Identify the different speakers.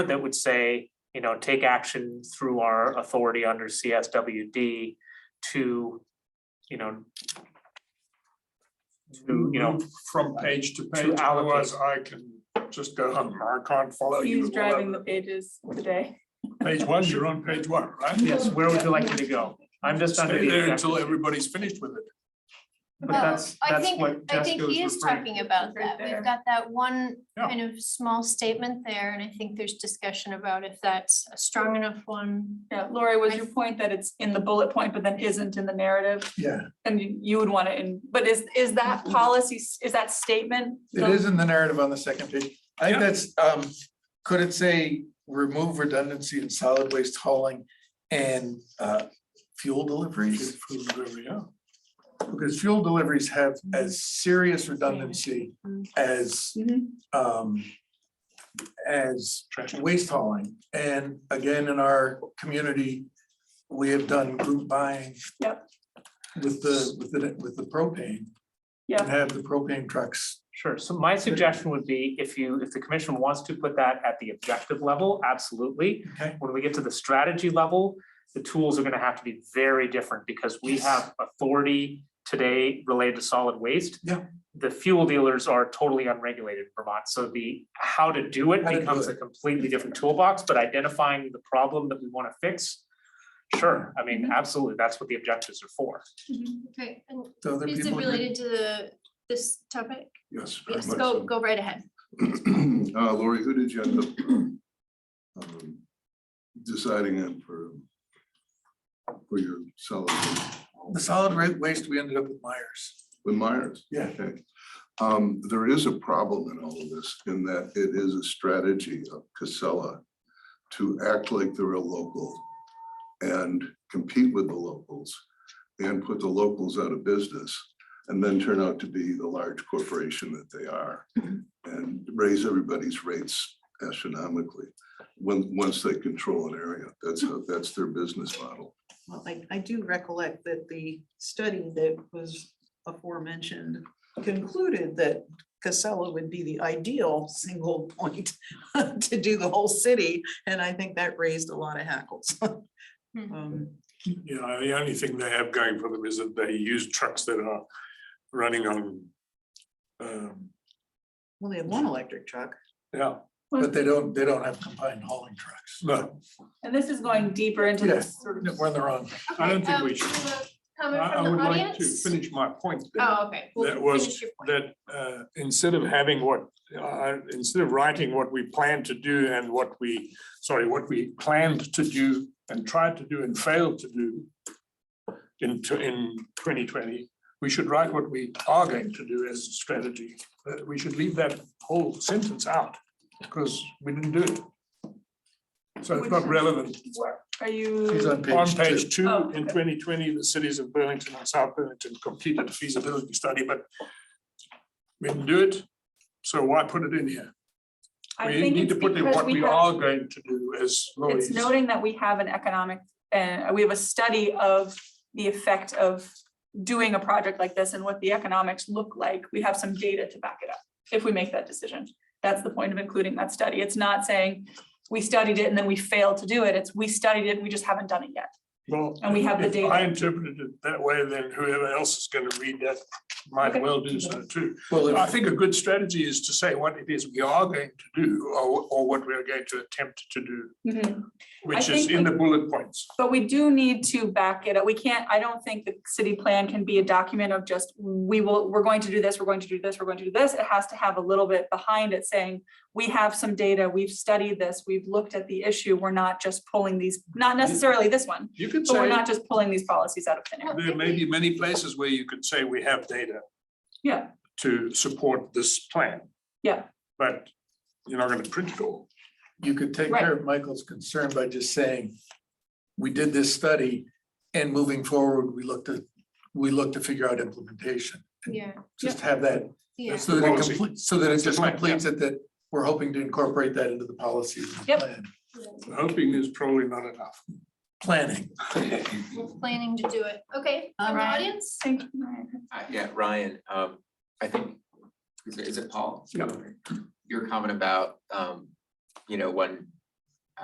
Speaker 1: that would say, you know, take action through our authority under CSWD to, you know, to, you know,
Speaker 2: move from page to
Speaker 1: to
Speaker 2: page,
Speaker 1: allocate.
Speaker 2: otherwise I can just go "Oh, and mark on, follow you.
Speaker 3: He's driving the
Speaker 2: whatever.
Speaker 3: pages today.
Speaker 2: Page one, you're on page one, right?
Speaker 1: yes, where would you like me to go? I'm just under
Speaker 2: Stay
Speaker 1: the
Speaker 2: there until
Speaker 1: impression-
Speaker 2: everybody's finished with it.
Speaker 1: But
Speaker 4: Well,
Speaker 1: that's,
Speaker 4: I
Speaker 1: that's
Speaker 4: think-
Speaker 1: what
Speaker 4: I think
Speaker 1: Jessica
Speaker 4: he
Speaker 1: was
Speaker 4: is
Speaker 1: referring.
Speaker 4: talking about
Speaker 3: Right
Speaker 4: that.
Speaker 3: there.
Speaker 4: We've got that one
Speaker 2: Yeah.
Speaker 4: kind of small statement there, and I think there's discussion about if that's a strong enough one.
Speaker 3: Yeah, Lori, was your point that it's in the bullet point, but then isn't in the narrative?
Speaker 5: Yeah,
Speaker 3: And you- you would want it in, but is, is that policy, s- is that statement?
Speaker 5: it is in the narrative on the second page. I
Speaker 2: Yeah.
Speaker 5: think that's, um, could it say remove redundancy in solid waste hauling and, uh, fuel deliveries?
Speaker 2: Yeah.
Speaker 5: Because fuel deliveries have as serious redundancy as,
Speaker 3: Mhm.
Speaker 5: um, as waste hauling. And again, in our community, we have done group buying.
Speaker 3: Yep.
Speaker 5: With the, with the, with the propane.
Speaker 3: Yeah.
Speaker 5: And have the propane trucks
Speaker 1: Sure, so my suggestion would be if you, if the commission wants to put that at the objective level, absolutely.
Speaker 5: Okay.
Speaker 1: When we get to the strategy level, the tools are gonna have to be very different because we have authority today related to solid waste.
Speaker 5: Yeah.
Speaker 1: The fuel dealers are totally unregulated in Vermont, so the how to do it
Speaker 5: How to do
Speaker 1: becomes a
Speaker 5: it.
Speaker 1: completely different toolbox, but identifying the problem that we wanna fix. Sure, I
Speaker 5: Mm-hmm.
Speaker 1: mean, absolutely, that's what the objectives are for.
Speaker 3: Mm-hmm.
Speaker 4: Okay, and
Speaker 5: to other
Speaker 4: is it
Speaker 5: people.
Speaker 4: related to the, this topic?
Speaker 6: Yes. very
Speaker 4: Yes,
Speaker 6: much
Speaker 4: go,
Speaker 6: so.
Speaker 4: go right ahead.
Speaker 6: Uh, Lori, who did you end up um, deciding on for, for your solid, waste?
Speaker 5: The solid ra- waste, we ended up with Myers.
Speaker 6: with Myers?
Speaker 5: Yeah.
Speaker 6: Okay. Um, There is a problem in all of this in that it is a strategy of Casella to act like they're a local and compete with the locals and put the locals out of business and then turn out to be the large corporation that they are and raise everybody's rates astronomically when, once they control an area. That's how, that's their business model.
Speaker 7: Well, I, I do recollect that the study that was aforementioned concluded that Casella would be the ideal single point to do the whole city, and I think that raised a lot of hackles. Um,
Speaker 2: You know, the only thing they have going for them is that they use trucks that are running on. um,
Speaker 7: Well, they had one electric truck.
Speaker 2: Yeah,
Speaker 5: But they don't, they don't have combined hauling trucks.
Speaker 2: no,
Speaker 3: And this is going deeper into
Speaker 5: Yeah.
Speaker 3: this sort
Speaker 5: No,
Speaker 3: of.
Speaker 5: We're in the wrong.
Speaker 2: I don't
Speaker 4: Okay,
Speaker 2: think
Speaker 4: um,
Speaker 2: we should.
Speaker 4: do you have a
Speaker 2: I
Speaker 4: Comment
Speaker 2: I
Speaker 4: from
Speaker 2: would
Speaker 4: the
Speaker 2: like to
Speaker 4: audience?
Speaker 2: finish my point. there.
Speaker 4: Oh, okay. well,
Speaker 2: That
Speaker 4: finish
Speaker 2: was,
Speaker 4: your point.
Speaker 2: that uh, instead of having what, uh, instead of writing what we plan to do and what we, sorry, what we planned to do and tried to do and failed to do in, tw- in twenty twenty, we should write what we are going to do as a strategy. But We should leave that whole sentence out because we didn't do it. So it's not relevant.
Speaker 3: Where- Are
Speaker 5: She's
Speaker 3: you,
Speaker 5: on
Speaker 2: On
Speaker 5: page two.
Speaker 2: page two,
Speaker 3: Oh,
Speaker 2: in
Speaker 3: okay.
Speaker 2: twenty twenty, the cities of Burlington and South Burlington completed a feasibility study, but we didn't do it, so why put it in here?
Speaker 3: I
Speaker 2: We
Speaker 3: think
Speaker 2: need
Speaker 3: it's
Speaker 2: to put in
Speaker 3: because
Speaker 2: what
Speaker 3: we
Speaker 2: we
Speaker 3: have,
Speaker 2: are going to do as
Speaker 3: it's
Speaker 2: Lori's.
Speaker 3: noting that we have an economic, uh, we have a study of the effect of doing a project like this and what the economics look like. We have some data to back it up if we make that decision. That's the point of including that study. It's not saying we studied it and then we failed to do it. It's we studied it, we just haven't done it yet.
Speaker 2: Well,
Speaker 3: and we have the
Speaker 2: if I
Speaker 3: data.
Speaker 2: interpreted it that way, then whoever else is going to read that
Speaker 3: Okay.
Speaker 2: might well do so too.
Speaker 5: Well,
Speaker 2: I
Speaker 5: if-
Speaker 2: think a good strategy is to say what it is we are going to do or, or what we are going to attempt to do,
Speaker 3: Mm-hmm.
Speaker 2: which is
Speaker 3: think
Speaker 2: in
Speaker 3: we-
Speaker 2: the bullet points.
Speaker 3: But we do need to back it up. We can't, I don't think the city plan can be a document of just, we will, we're going to do this, we're going to do this, we're going to do this. It has to have a little bit behind it saying, we have some data, we've studied this, we've looked at the issue. We're not just pulling these, not necessarily this one,
Speaker 2: You could
Speaker 3: but
Speaker 2: say.
Speaker 3: we're not just pulling these policies out of thin air.
Speaker 2: There may be many places where you could say we have data
Speaker 3: Yeah,
Speaker 2: to support this plan.
Speaker 3: Yeah.
Speaker 2: But you're not gonna print it all.
Speaker 5: you could take care of Michael's concern by just saying, we did this study and moving forward, we looked at, we looked to figure out implementation.
Speaker 4: Yeah,
Speaker 5: Just have that,
Speaker 4: yeah.
Speaker 5: so that it
Speaker 2: Policy.
Speaker 5: completes, so that it just
Speaker 2: Plan, yeah.
Speaker 5: completes it, that we're hoping to incorporate that into the policy. and the
Speaker 3: Yep.
Speaker 5: plan-
Speaker 2: Hoping is probably not enough.
Speaker 5: Planning.
Speaker 4: We're Planning to do it. Okay,
Speaker 7: All
Speaker 4: from the
Speaker 7: right.
Speaker 4: audience?
Speaker 3: thank you. Ryan.
Speaker 8: Uh, yeah, Ryan, um, I think, is it, is it Paul?
Speaker 2: Yeah.
Speaker 8: Your comment about, um, you know, when